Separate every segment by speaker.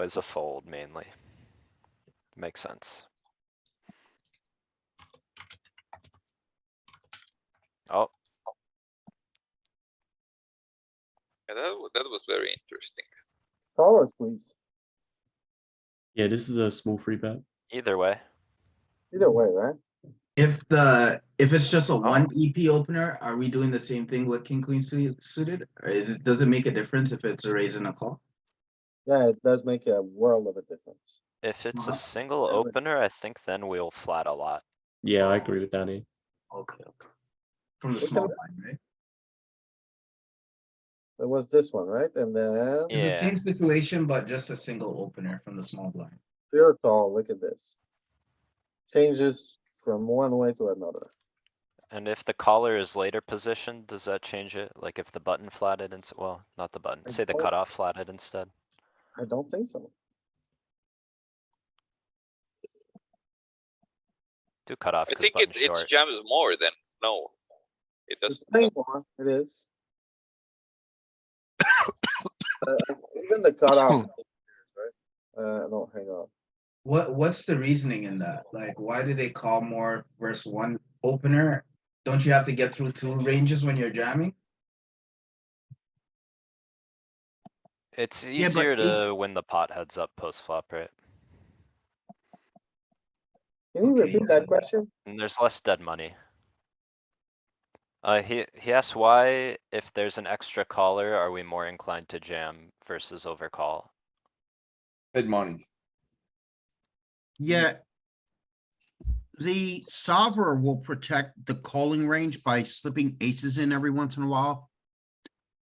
Speaker 1: is a fold mainly. Makes sense. Oh,
Speaker 2: Yeah, that, wa- that was very interesting.
Speaker 3: Power squeeze,
Speaker 4: Yeah, this is a small free bet.
Speaker 1: either way,
Speaker 3: either
Speaker 5: Mm-hmm.
Speaker 3: way, right?
Speaker 5: If the, if it's just
Speaker 1: Oh.
Speaker 5: a one EP opener, are we doing the same thing with king, queen su- suited? Or is, it does it make a difference if it's a raise and a call?
Speaker 3: Yeah, it does make a world of a difference.
Speaker 1: if it's a
Speaker 5: Smart.
Speaker 1: single
Speaker 3: Really?
Speaker 1: opener, I think then we'll flat a lot.
Speaker 4: Yeah, I agree with Danny.
Speaker 5: Okay, okay. From the
Speaker 3: Okay.
Speaker 5: small blind, right?
Speaker 3: It was this one, right? And then
Speaker 1: Yeah.
Speaker 5: It's the Same situation, but just a single opener from the small blind.
Speaker 3: pure call, look at this. Changes from one way to another.
Speaker 1: And if the caller is later positioned, does that change it? Like if the button flatted and, well, not the button,
Speaker 3: I
Speaker 1: say the
Speaker 3: don't-
Speaker 1: cutoff flatted instead?
Speaker 3: I don't think so.
Speaker 1: Do cutoff
Speaker 2: I
Speaker 1: 'cause
Speaker 2: think it,
Speaker 1: button's
Speaker 2: it's
Speaker 1: short.
Speaker 2: jams more than, no. It
Speaker 3: It's
Speaker 2: doesn't,
Speaker 3: playing more, it is. Uh, it's Even the
Speaker 5: Hmm.
Speaker 3: cutoff. right? Uh, no, hang on.
Speaker 5: What, what's the reasoning in that? Like, why do they call more versus one opener? Don't you have to get through two ranges when you're jamming?
Speaker 1: It's
Speaker 5: Yeah, but
Speaker 1: easier
Speaker 5: it-
Speaker 1: to win the pot heads up post flop, right?
Speaker 3: Can you
Speaker 5: Okay,
Speaker 3: repeat
Speaker 5: yeah.
Speaker 3: that question?
Speaker 1: And there's less dead money. Uh, he, he asked why, if there's an extra caller, are we more inclined to jam versus overcall?
Speaker 6: Dead money.
Speaker 7: Yeah. The solver will protect the calling range by slipping aces in every once in a while.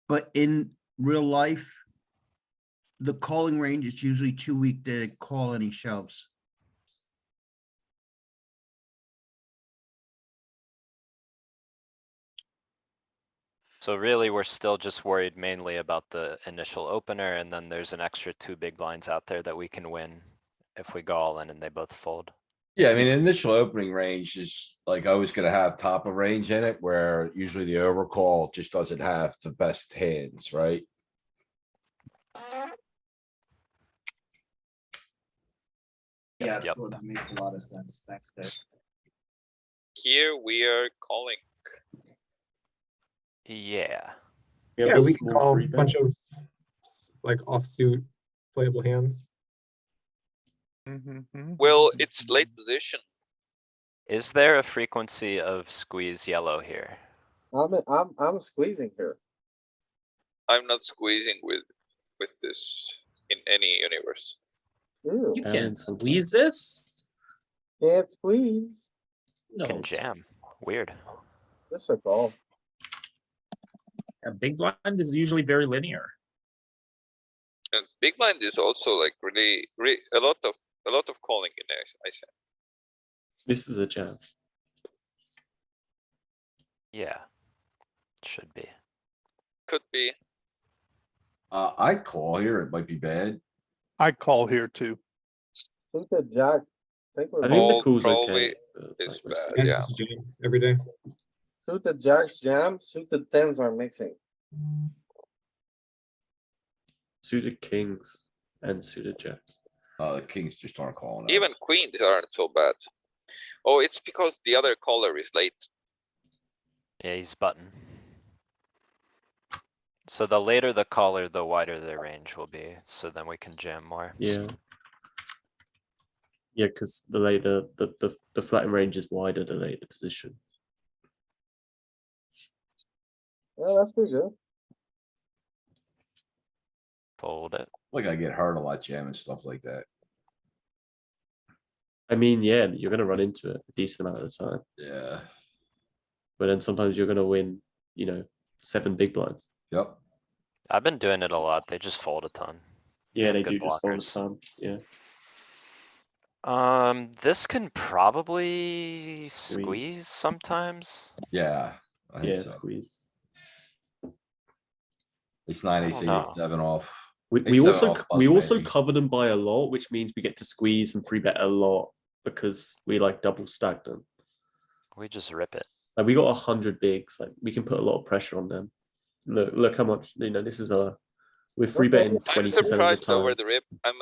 Speaker 7: But in real life. The calling range is usually too weak to call any shoves.
Speaker 1: So really, we're still just worried mainly about the initial opener and then there's an extra two big blinds out there that we can win. If we go all in and they both fold.
Speaker 6: Yeah, I mean, initial opening range is like always gonna have top of range in it where usually the overcall just doesn't have the best hands, right?
Speaker 1: Yep,
Speaker 5: Yeah,
Speaker 1: yep.
Speaker 5: well, that makes a lot of sense. Thanks, guys.
Speaker 2: here we are calling.
Speaker 1: Yeah,
Speaker 4: have
Speaker 8: Yeah,
Speaker 4: a
Speaker 8: we can
Speaker 4: small
Speaker 8: call
Speaker 4: free
Speaker 8: a bunch
Speaker 4: bet.
Speaker 8: of like offsuit playable hands.
Speaker 6: Mm-hmm.
Speaker 2: Well, it's late position.
Speaker 1: is there a frequency of squeeze yellow here?
Speaker 3: I'm, I'm, I'm squeezing here.
Speaker 2: I'm not squeezing with, with this in any universe.
Speaker 3: Ew,
Speaker 9: You
Speaker 4: And
Speaker 9: can't
Speaker 4: sometimes-
Speaker 9: squeeze this?
Speaker 3: can't squeeze.
Speaker 9: No,
Speaker 1: Can jam, weird.
Speaker 3: This a call.
Speaker 9: a big blind is usually very linear.
Speaker 2: And big blind is also like really, re, a lot of, a lot of calling in there, I said.
Speaker 4: This is a jam.
Speaker 1: Yeah. Should be.
Speaker 2: Could be,
Speaker 6: Uh, I call here, it might be bad.
Speaker 10: I call here too.
Speaker 3: Think the jack. Think
Speaker 4: I
Speaker 3: we're
Speaker 4: think
Speaker 2: Call
Speaker 4: the call's
Speaker 2: probably
Speaker 4: okay. but,
Speaker 2: is
Speaker 4: like, we're
Speaker 2: bad,
Speaker 4: still-
Speaker 2: yeah.
Speaker 8: That's just a jam every day.
Speaker 3: Suited jacks jam, suited tens are mixing.
Speaker 4: Suited kings and suited jacks.
Speaker 6: Uh, the kings just aren't calling. out.
Speaker 2: even queens aren't so bad. Oh, it's because the other caller is late.
Speaker 1: Yeah, he's button. So the later the caller, the wider their range will be, so then we can jam more.
Speaker 4: Yeah. Yeah, because the later the, the the flattened range is wider, the later the position.
Speaker 3: Yeah, that's pretty good.
Speaker 1: Fold it.
Speaker 6: Like I get hurt a lot jamming stuff like that.
Speaker 4: I mean, yeah, you're gonna run into it a decent amount of the time,
Speaker 6: Yeah,
Speaker 4: but then sometimes you're gonna win, you know, seven big blinds.
Speaker 6: yep.
Speaker 1: I've been doing it a lot. They just fold a ton.
Speaker 4: Yeah, they
Speaker 1: Good
Speaker 4: do just all the
Speaker 1: blockers.
Speaker 4: time. Yeah,
Speaker 1: Um, this can probably
Speaker 4: Squeeze.
Speaker 1: squeeze sometimes.
Speaker 6: Yeah. I think
Speaker 4: yeah,
Speaker 6: so.
Speaker 4: squeeze.
Speaker 6: It's nine,
Speaker 1: I
Speaker 6: eight,
Speaker 1: don't
Speaker 6: eight,
Speaker 1: know.
Speaker 6: seven off.
Speaker 4: We,
Speaker 6: Think
Speaker 4: we
Speaker 6: so,
Speaker 4: also
Speaker 6: I'll
Speaker 4: c-
Speaker 6: plus
Speaker 4: we also
Speaker 6: maybe.
Speaker 4: cover them by a lot, which means we get to squeeze and free bet a lot because we like double stack them.
Speaker 1: We just rip it.
Speaker 4: Like we got a hundred bigs, like we can put a lot of pressure on them. Look, look how much you know. This is a we're free betting
Speaker 3: I'm
Speaker 4: twenty
Speaker 2: I'm
Speaker 4: percent of the
Speaker 2: surprised
Speaker 4: time.
Speaker 2: over the rip. I'm